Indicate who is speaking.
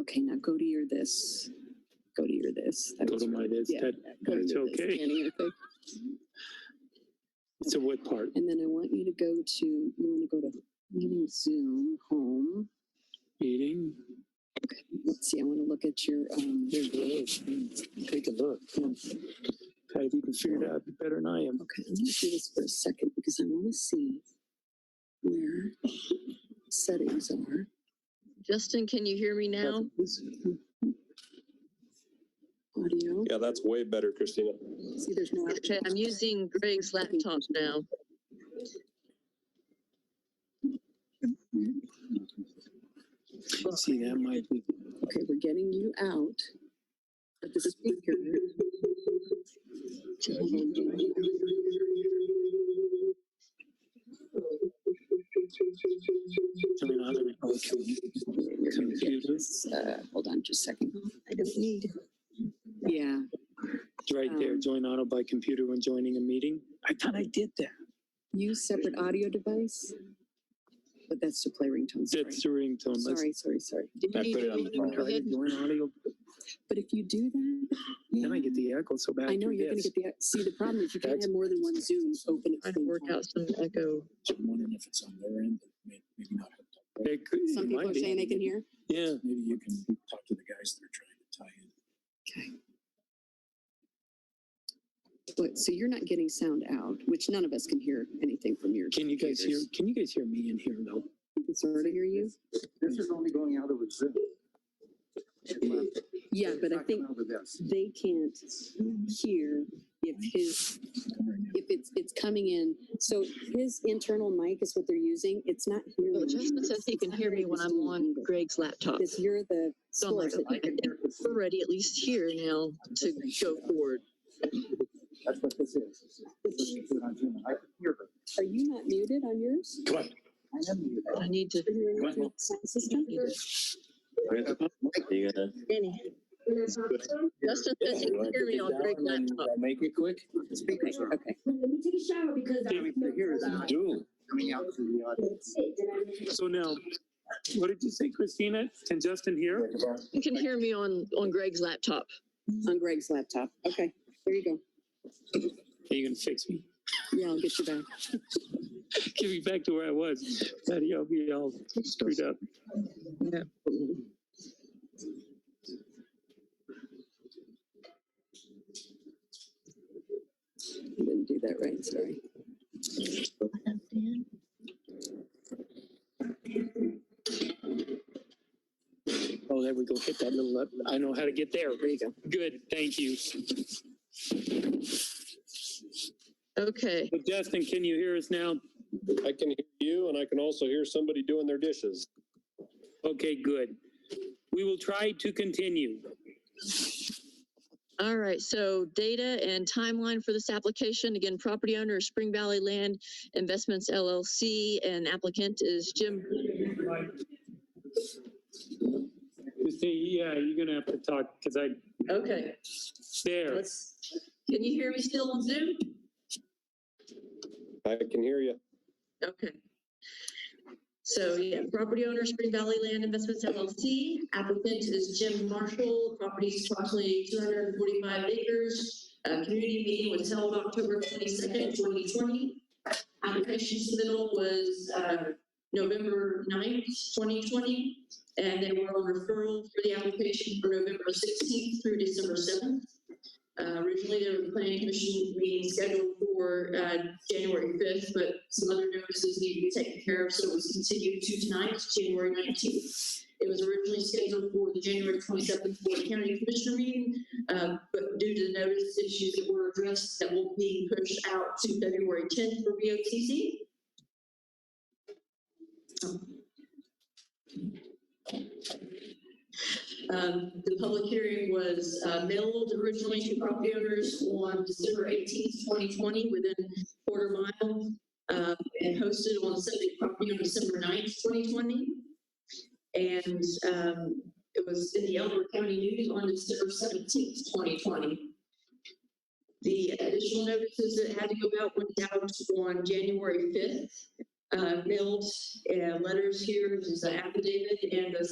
Speaker 1: okay, now go to your this, go to your this. That
Speaker 2: Go
Speaker 1: was
Speaker 2: to my
Speaker 1: really-
Speaker 2: this,
Speaker 1: yeah,
Speaker 2: that,
Speaker 1: go to
Speaker 2: that's
Speaker 1: your this
Speaker 2: okay.
Speaker 1: scanning, I think.
Speaker 2: so what part?
Speaker 1: And then I want you to go to, you want to go to meeting Zoom, home.
Speaker 2: Meeting?
Speaker 1: Let's see, I want to look at your, um,
Speaker 2: Here it is. Take a look. Patty, you can figure it out better than I am.
Speaker 1: okay, I'm gonna do this for a second because I want to see where settings are.
Speaker 3: Justin, can you hear me now?
Speaker 1: Audio,
Speaker 4: Yeah, that's way better, Christina.
Speaker 1: see there's no.
Speaker 3: Okay, I'm using Greg's laptop now.
Speaker 2: See, that might be,
Speaker 1: Okay, we're getting you out of the speaker. Hold on.
Speaker 2: turn on the computer. It's
Speaker 1: Uh, hold on just a second.
Speaker 3: I don't need.
Speaker 1: Yeah,
Speaker 2: right there,
Speaker 1: Um,
Speaker 2: join auto by computer when joining a meeting. I thought I did that.
Speaker 1: use separate audio device. But that's to play ringtones, sorry.
Speaker 2: That's the ringtone. Let's
Speaker 1: Sorry, sorry, sorry.
Speaker 4: I put it on the phone.
Speaker 2: try to join audio.
Speaker 1: But if you do that.
Speaker 2: Then I
Speaker 1: yeah.
Speaker 2: get the echo so bad.
Speaker 1: Mm. I know
Speaker 2: through
Speaker 1: you're gonna
Speaker 2: this.
Speaker 1: get the, see, the problem is you can
Speaker 2: That's-
Speaker 1: have more than one Zoom open. at the
Speaker 3: Trying to
Speaker 1: same
Speaker 3: work
Speaker 1: time.
Speaker 3: out some echo.
Speaker 5: I'm wondering if it's on their end, but may- maybe not.
Speaker 2: It could- it
Speaker 1: Some people
Speaker 2: might
Speaker 1: are
Speaker 2: be.
Speaker 1: saying they can hear.
Speaker 2: Yeah.
Speaker 5: Maybe you can talk to the guys that are trying to tie in.
Speaker 1: But, so you're not getting sound out, which none of us can hear anything from your.
Speaker 2: Can you guys hear,
Speaker 1: computers.
Speaker 2: can you guys hear me in here though?
Speaker 1: We can Sort of hear you?
Speaker 6: This is only going out of a Zoom.
Speaker 1: Yeah, but I
Speaker 6: Not coming
Speaker 1: think
Speaker 6: Over this.
Speaker 1: they can't hear if his, if it's, it's coming in. So his internal mic is what they're using. It's not
Speaker 3: Well,
Speaker 1: hearing.
Speaker 3: Justin says he can hear me when I'm on Greg's laptop.
Speaker 1: Because you're the
Speaker 3: So I'm like,
Speaker 1: source. that
Speaker 3: I
Speaker 1: you can-
Speaker 3: think we're ready at least here now to go forward.
Speaker 6: That's what this is. This is what you do on Zoom. I can hear her.
Speaker 1: Are you not muted on yours?
Speaker 4: Come on.
Speaker 6: I am muted.
Speaker 3: I need to.
Speaker 1: Is your
Speaker 4: What?
Speaker 1: internal sound system?
Speaker 4: You gotta
Speaker 3: Justin says he can hear me on Greg's laptop.
Speaker 6: Make it quick. Speakers are
Speaker 1: Okay.
Speaker 7: Let me take a shower because. I
Speaker 6: Can't even hear that.
Speaker 4: do.
Speaker 6: coming out to the audience.
Speaker 2: So now, what did you say, Christina? Can Justin hear?
Speaker 3: He can hear me on, on Greg's laptop.
Speaker 1: On Greg's laptop. Okay, there you go.
Speaker 2: Are you gonna fix me?
Speaker 1: Yeah, I'll get you back.
Speaker 2: Get me back to where I was. Patty, I'll be all screwed up.
Speaker 1: I Didn't do that right, sorry.
Speaker 2: Oh, there we go. Hit that little, up. I know how to get there.
Speaker 1: There you go.
Speaker 2: Good, thank you.
Speaker 3: Okay,
Speaker 2: Well, Justin, can you hear us now?
Speaker 4: I can hear you and I can also hear somebody doing their dishes.
Speaker 2: Okay, good. We will try to continue.
Speaker 3: all right, so data and timeline for this application, again, property owner is Spring Valley Land Investments LLC, and applicant is Jim
Speaker 2: Christina, yeah, you're gonna have to talk, because I,
Speaker 3: Okay,
Speaker 2: there.
Speaker 3: let's, can you hear me still on Zoom?
Speaker 4: I can hear you.
Speaker 3: Okay. So, yeah, property owner Spring Valley Land Investments LLC, applicant is Jim Marshall, property is approximately two hundred and forty-five acres. Uh, community meeting was held October twenty-second, twenty twenty. Application submittal was, uh, November 9th, twenty twenty. And they were on referral for the application for November sixteenth through December seventh. Uh, originally, there were planning commission meetings scheduled for, uh, January fifth, but some other notices need to be taken care of, so it was continued to tonight, January nineteenth. It was originally scheduled for the January twenty-seventh Board of County Commissioner meeting, um, but due to the notice issues that were addressed, that will be pushed out to February tenth for BOTC. Um, the public hearing was, uh, mailed originally to property owners on December eighteenth, twenty twenty, within quarter mile, um, and hosted on subject property on December 9th, twenty twenty. And, um, it was in the Elbert County News on December seventeenth, twenty twenty. The additional notices that had to go out went out on January fifth. Uh, mailed, uh, letters here, there's an affidavit and a